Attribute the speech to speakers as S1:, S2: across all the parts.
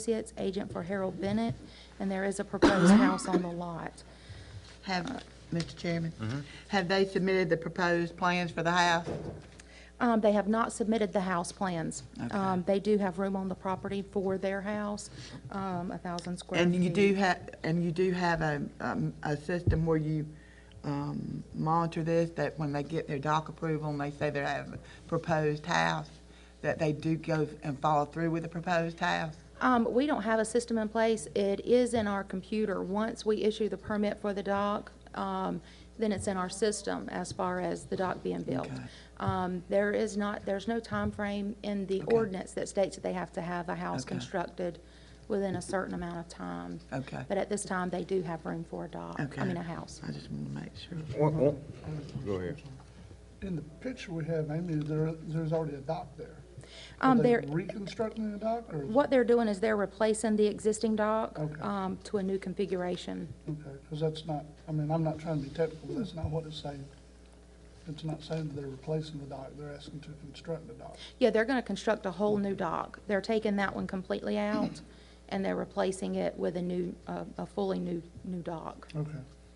S1: Associates, agent for Harold Bennett, and there is a proposed house on the lot.
S2: Have, Mr. Chairman, have they submitted the proposed plans for the house?
S1: Um, They have not submitted the house plans. Um, They do have room on the property for their house, um, a thousand square feet.
S2: And you do have, and you do have a, um, a system where you um, monitor this, that when they get their dock approval and they say they have a proposed house, that they do go and follow through with the proposed house?
S1: Um, We don't have a system in place. It is in our computer. Once we issue the permit for the dock, um, then it's in our system as far as the dock being built.
S2: Okay.
S1: Um, There is not, there's no time frame in the ordinance that states that they have to have a house
S2: Okay.
S1: constructed within a certain amount of time.
S2: Okay.
S1: But at this time, they do have room for a dock,
S2: Okay.
S1: I mean, a house.
S2: I just want to make sure.
S3: Go ahead.
S4: In the picture we have, Amy, there, there's already a dock there. Are
S1: Um,
S4: they
S1: there,
S4: reconstructing the dock or?
S1: what they're doing is they're replacing the existing dock
S4: Okay.
S1: um, to a new configuration.
S4: Because that's not, I mean, I'm not trying to be technical, but that's not what it's saying. It's not saying that they're replacing the dock, they're asking to construct the dock.
S1: Yeah, they're gonna construct a whole new dock. They're taking that one completely out, and they're replacing it with a new, a a fully new, new dock.
S4: Okay.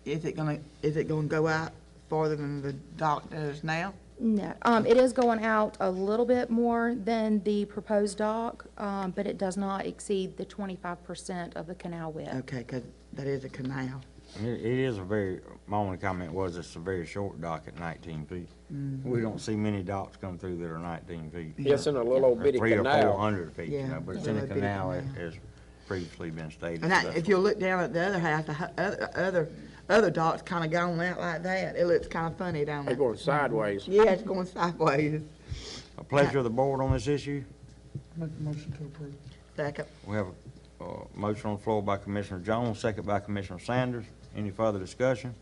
S2: Is it gonna, is it gonna go out farther than the dock does now?
S1: No, um, it is going out a little bit more than the proposed dock, um, but it does not exceed the twenty-five percent of the canal width.
S2: Okay, because that is a canal.
S3: It, it is a very, my only comment was it's a very short dock at nineteen feet.
S2: Mm-hmm.
S3: We don't see many docks come through that are nineteen feet.
S5: It's in a little old
S3: Or
S5: bitty
S3: Three or four
S5: canal.
S3: hundred feet, you
S2: Yeah,
S3: know, but it's
S2: yeah.
S3: in a
S2: Little bitty
S3: canal as,
S2: canal.
S3: as previously been stated.
S2: And I,
S3: That's
S2: if you look down at the other house, the hu- other, other, other dock's kind of gone out like that. It looks kind of funny down
S5: They're
S2: there.
S5: going sideways.
S2: Yeah, it's going sideways.
S3: A pleasure of the board on this issue.
S4: Make a motion to approve.
S2: Second.
S3: We have a, uh motion on the floor by Commissioner Jones, second by Commissioner Sanders. Any further discussion?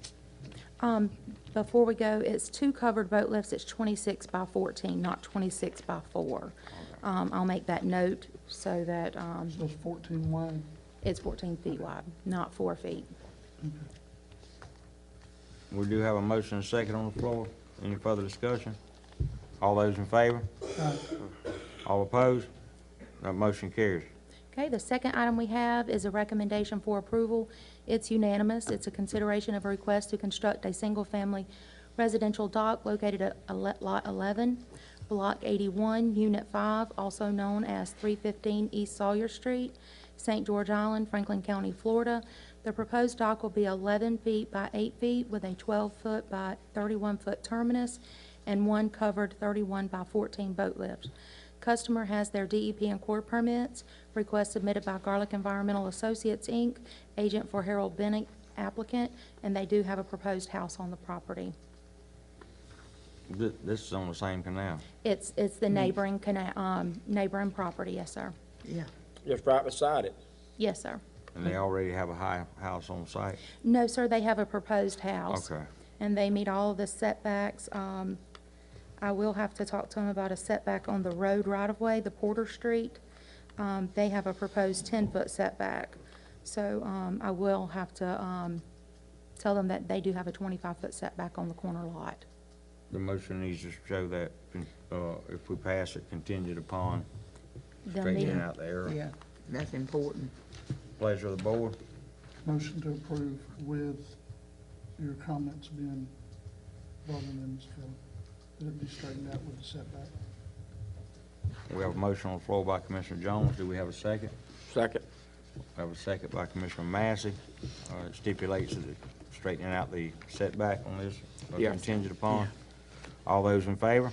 S1: Um, before we go, it's two covered boat lifts, it's twenty-six by fourteen, not twenty-six by four. Um, I'll make that note so that, um,
S4: So it's fourteen wide.
S1: it's fourteen feet wide, not four feet.
S3: We do have a motion and second on the floor. Any further discussion? All those in favor? All opposed? That motion carries.
S1: Okay, the second item we have is a recommendation for approval. It's unanimous. It's a consideration of a request to construct a single-family residential dock located at ele- Lot 11, Block 81, Unit 5, also known as 315 East Sawyer Street, St. George Island, Franklin County, Florida. The proposed dock will be 11 feet by 8 feet with a 12-foot by 31-foot terminus and one covered 31 by 14 boat lift. Customer has their DEP and core permits. Request submitted by Garlic Environmental Associates, Inc., agent for Harold Bennett applicant, and they do have a proposed house on the property.
S3: Th- This is on the same canal.
S1: It's, it's the neighboring, cana- um, neighboring property, yes, sir.
S2: Yeah.
S5: Just right beside it.
S1: Yes, sir.
S3: And they already have a high house on site?
S1: No, sir, they have a proposed house.
S3: Okay.
S1: And they meet all of the setbacks. Um, I will have to talk to them about a setback on the road right-of-way, the Porter Street. Um, They have a proposed 10-foot setback. So um, I will have to um, tell them that they do have a 25-foot setback on the corner lot.
S3: The motion needs to show that, con- uh, if we pass it contingent upon
S1: They'll meet-
S3: straightening out the area.
S2: Yeah, that's important.
S3: Pleasure of the board.
S4: Motion to approve with your comments being brought in, and That it be straightened out with the setback.
S3: We have a motion on the floor by Commissioner Jones. Do we have a second?
S5: Second.
S3: We have a second by Commissioner Massey. Uh, it Stipulates that it- straightening out the setback on this, uh,
S5: Yeah.
S3: contingent upon. All those in favor?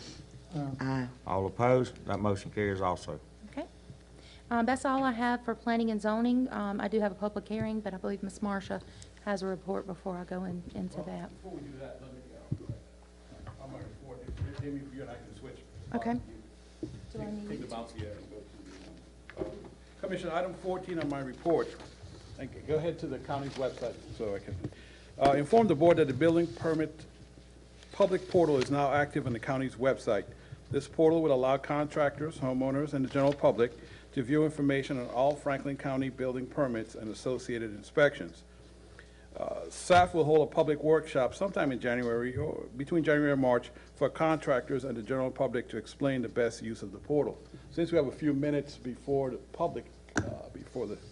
S2: Aye.
S3: All opposed? That motion carries also.
S1: Okay. Um, That's all I have for planning and zoning. Um, I do have a public hearing, but I believe Ms. Marsha has a report before I go in- into that.
S6: Before we do that, let me, uh, I'm gonna report, if, Jimmy, if you and I can switch.
S1: Okay.
S6: Take- Take the bouncy here and go to the, um, Commissioner, item fourteen on my report, Thank you. go ahead to the county's website so I can, uh, inform the board that the building permit public portal is now active on the county's website. This portal will allow contractors, homeowners, and the general public to view information on all Franklin County building permits and associated inspections. Staff will hold a public workshop sometime in January, or between January and March, for contractors and the general public to explain the best use of the portal. Since we have a few minutes before the public, uh, bef- for the